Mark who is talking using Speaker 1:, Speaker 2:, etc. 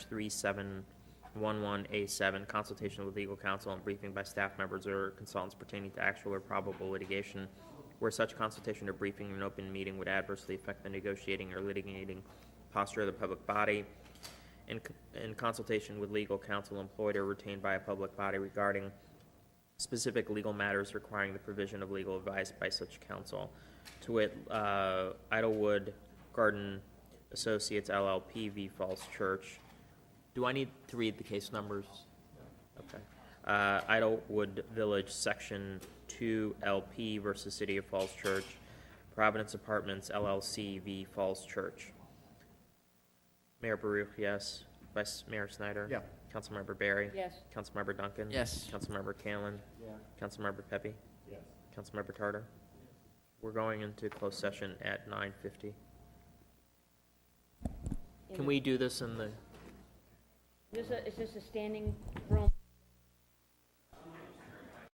Speaker 1: 3711A7, consultation with legal counsel and briefing by staff members or consultants pertaining to actual or probable litigation, where such consultation or briefing in an open meeting would adversely affect the negotiating or litigating posture of the public body, in, c- in consultation with legal counsel employed or retained by a public body regarding specific legal matters requiring the provision of legal advice by such counsel. To wit, uh, Idlewood Garden Associates LLP v. Falls Church. Do I need to read the case numbers? Okay. Uh, Idlewood Village, Section 2 LP versus City of Falls Church. Providence Apartments LLC v. Falls Church. Mayor Baruch, yes. Vice Mayor Snyder?
Speaker 2: Yeah.
Speaker 1: Councilmember Barry?
Speaker 3: Yes.
Speaker 1: Councilmember Duncan?
Speaker 4: Yes.
Speaker 1: Councilmember Callan?
Speaker 2: Yeah.
Speaker 1: Councilmember Pepe?
Speaker 2: Yes.
Speaker 1: Councilmember Tartar? We're going into closed session at nine fifty.
Speaker 3: In
Speaker 1: Can
Speaker 3: the-
Speaker 1: we do this in the,
Speaker 3: This a- Is this a standing